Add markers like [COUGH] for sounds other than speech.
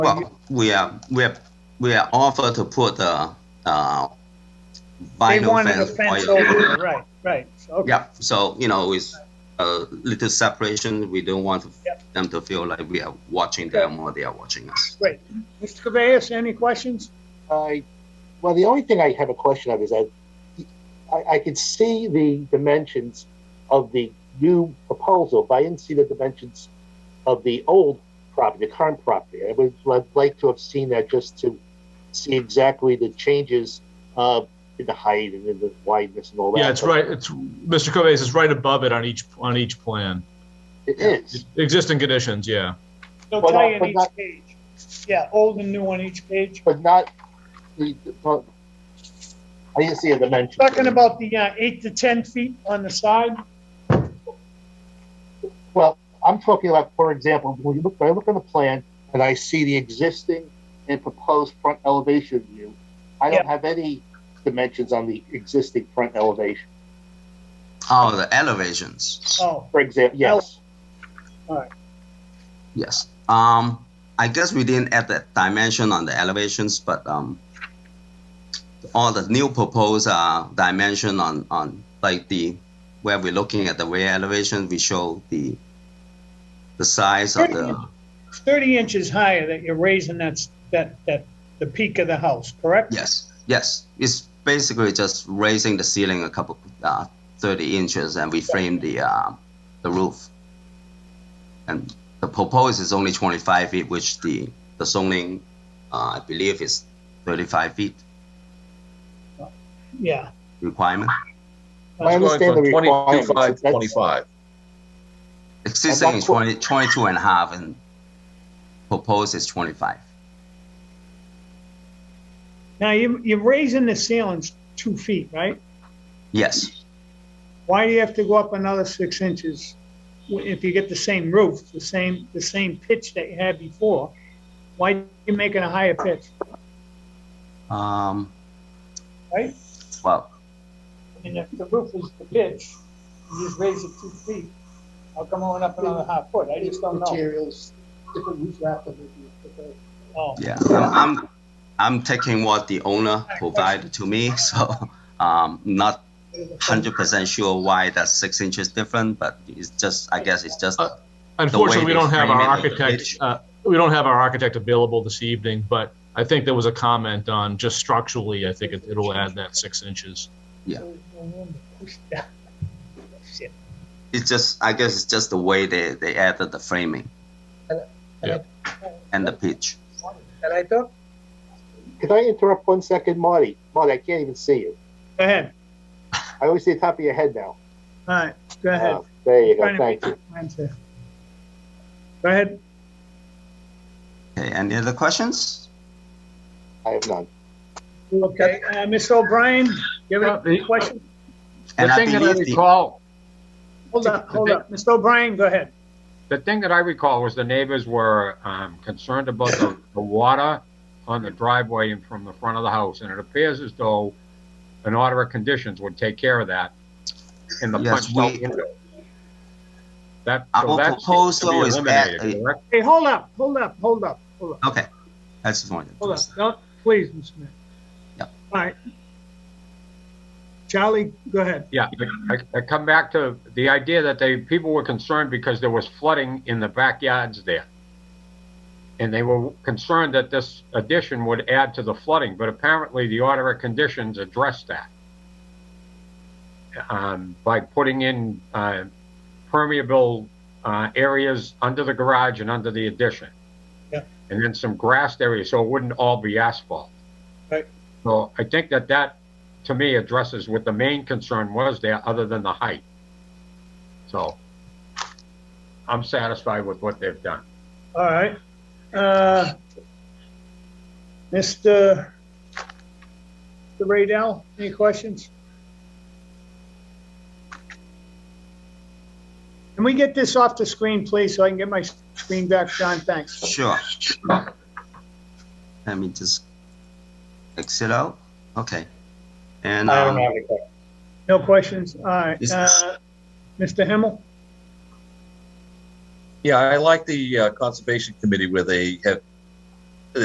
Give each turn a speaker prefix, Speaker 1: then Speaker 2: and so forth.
Speaker 1: Well, we are, we're, we're offered to put the, uh,
Speaker 2: They
Speaker 1: vinyl
Speaker 2: wanted a
Speaker 1: fence.
Speaker 2: fence
Speaker 1: wire.
Speaker 2: over, it, right, right, okay.
Speaker 1: Yeah, so, you know, with a little separation, we don't want
Speaker 2: Yep.
Speaker 1: them to feel like we are watching them or they are watching us.
Speaker 2: Mr. Cabeas, any questions?
Speaker 3: I, well, the only thing I have a question of is I, I, I could see the dimensions of the new proposal, but I didn't see the dimensions of the old property, the current property. I would li- like to have seen that just to see exactly the changes uh, in the height and in the wideness and all that.
Speaker 4: Yeah, it's right, it's, Mr. Covais, it's right above it on each, on each plan.
Speaker 3: It is.
Speaker 4: Existing conditions, yeah.
Speaker 2: They'll
Speaker 3: Well,
Speaker 2: tell
Speaker 3: no,
Speaker 2: you on
Speaker 3: but
Speaker 2: each
Speaker 3: not-
Speaker 2: page. Yeah, old and new on each page.
Speaker 3: but not the, the- but I didn't see a dimension.
Speaker 2: Talking about the uh, eight to 10 feet on the side,
Speaker 3: Well, I'm talking about, for example, when you look, when I look on the plan and I see the existing and proposed front elevation view, I don't
Speaker 2: Yeah.
Speaker 3: have any dimensions on the existing front elevation.
Speaker 1: Oh, the elevations,
Speaker 2: oh,
Speaker 3: For example, yes,
Speaker 1: yes. Um, I guess we didn't add that dimension on the elevations, but, um, all the new proposed, uh, dimension on, on, like the, where we're looking at the rear elevation, we show the, the size of the.
Speaker 2: 30 inches higher that you're raising that's, that, that, the peak of the house, correct?
Speaker 1: Yes, yes. It's basically just raising the ceiling a couple, uh, 30 inches and we frame the, uh, the roof. And the proposed is only 25 feet, which the, the zoning, uh, I believe is 35 feet
Speaker 2: Yeah.
Speaker 1: requirement.
Speaker 3: I
Speaker 5: It's
Speaker 3: understand the
Speaker 5: going from
Speaker 3: requirements.
Speaker 5: 25 to
Speaker 3: That's-
Speaker 5: 25.
Speaker 1: Existing is
Speaker 3: cool.
Speaker 1: 20, 22 and a half and proposed is 25.
Speaker 2: Now, you, you're raising the ceilings two feet, right?
Speaker 1: Yes,
Speaker 2: Why do you have to go up another six inches if you get the same roof, the same, the same pitch that you had before? Why are you making a higher pitch,
Speaker 1: um,
Speaker 2: right?
Speaker 1: well,
Speaker 2: And if the roof is the pitch, you just raise it two feet. I'll come on up another half foot? I just don't know.
Speaker 6: Materials, different roof rack that would be prepared.
Speaker 2: Oh,
Speaker 1: Yeah, I'm, I'm, I'm taking what the owner provided to me, [LAUGHS] so, um, not hundred percent sure why that's six inches different, but it's just, I guess it's just,
Speaker 4: Unfortunately, we
Speaker 1: they
Speaker 4: don't have
Speaker 1: frame
Speaker 4: our
Speaker 1: it with the
Speaker 4: architect,
Speaker 1: pitch.
Speaker 4: uh, we don't have our architect available this evening, but I think there was a comment on just structurally, I think it- it'll add that six inches.
Speaker 2: Shit.
Speaker 1: it's just, I guess it's just the way they, they added the framing.
Speaker 4: Yeah.
Speaker 1: And the pitch.
Speaker 6: And I thought
Speaker 3: Could I interrupt one second, Marty? Marty, I can't even see you.
Speaker 2: Go ahead.
Speaker 3: I only see the top of your head now.
Speaker 2: All right, go ahead.
Speaker 3: Uh, There you
Speaker 2: Trying to
Speaker 3: go, thank you.
Speaker 2: make sense here. Go ahead.
Speaker 1: Okay, any other questions?
Speaker 3: I have none.
Speaker 2: Okay, uh, Ms. O'Brien, you have any questions?
Speaker 1: And
Speaker 7: The
Speaker 1: I
Speaker 7: thing that I
Speaker 1: believe the,
Speaker 7: recall,
Speaker 2: Hold up, hold up. Mr. O'Brien, go ahead.
Speaker 7: the thing that I recall was the neighbors were um, concerned about the, the water on the driveway and from the front of the house, and it appears as though an order of conditions would take care of that in the
Speaker 1: Yes,
Speaker 7: punched out
Speaker 1: we-
Speaker 7: window. That,
Speaker 1: Our
Speaker 7: so that seems to be
Speaker 1: proposal is at
Speaker 7: eliminated,
Speaker 1: a-
Speaker 7: correct?
Speaker 2: Hey, hold up, hold up, hold up, hold up,
Speaker 1: okay, that's the one.
Speaker 2: hold up. Don't, please, Mr. Mayor.
Speaker 1: Yep.
Speaker 2: All right. Charlie, go ahead.
Speaker 7: Yeah, I, I come back to the idea that they, people were concerned because there was flooding in the backyards there. And they were concerned that this addition would add to the flooding, but apparently the order of conditions addressed that. Um, by putting in, uh, permeable, uh, areas under the garage and under the addition.
Speaker 2: Yeah.
Speaker 7: And then some grassed areas, so it wouldn't all be asphalt.
Speaker 2: Right.
Speaker 7: So I think that that to me addresses what the main concern was there, other than the height. So I'm satisfied with what they've done.
Speaker 2: All right. Uh, Mr. Mr. Raydell, any questions? Can we get this off the screen, please, so I can get my screen back, John? Thanks.
Speaker 1: Sure. Let me just exit out, okay. And, um,
Speaker 2: No questions? All right.
Speaker 1: Is-
Speaker 2: Uh, Mr. Himmel?
Speaker 5: Yeah, I like the uh, Conservation Committee where they have